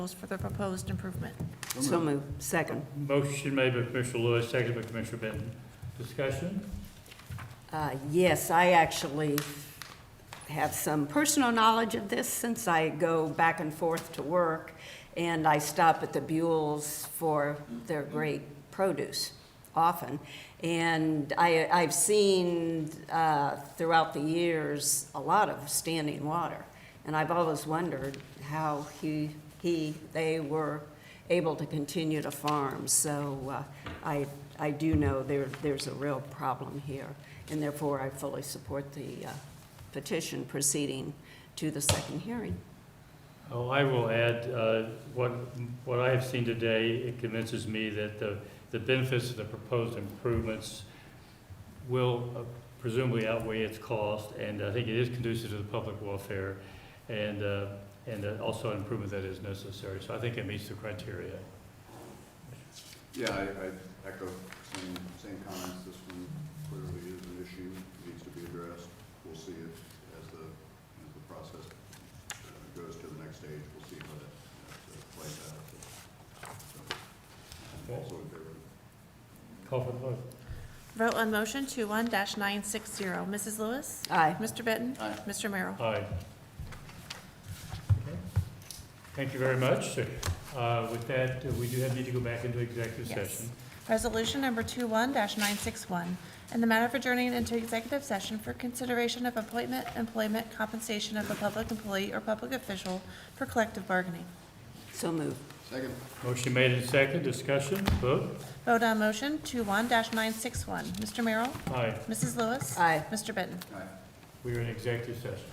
for the proposed improvement. So move. Second. Motion made by Commissioner Lewis, seconded by Commissioner Benton. Discussion? Uh, Yes, I actually have some personal knowledge of this since I go back and forth to work, and I stop at the Buells for their great produce often. And I, I've seen uh, throughout the years, a lot of standing water, and I've always wondered how he, he, they were able to continue to farm. So uh, I, I do know there, there's a real problem here, and therefore I fully support the uh, petition proceeding to the second hearing. Oh, I will add, uh, what, what I have seen today, it convinces me that the, the benefits of the proposed improvements will uh, presumably outweigh its cost, and I think it is conducive to the public welfare, and, uh, and uh, also an improvement that is necessary, so I think it meets the criteria. Yeah, I, I echo same, same comments. This one clearly is an issue, needs to be addressed. We'll see it as the, as the process uh, goes to the next stage. We'll see how that, that uh, plays out. So, I'm Also in favor. Call for the vote. Vote on motion 21-960. Mrs. Lewis? Aye. Mr. Benton? Aye. Mr. Merrill? Aye. Thank you very much. Uh, With that, uh, we do have need to go back into executive Yes. session. Resolution number 21-961, in the matter of adjourning into executive session for consideration of appointment, employment, compensation of a public employee or public official for collective bargaining. So moved. Second. Motion made and second, discussion, vote. Vote on motion 21-961. Mr. Merrill? Aye, Mrs. Lewis? Aye. Mr. Benton? Aye. we are in executive session.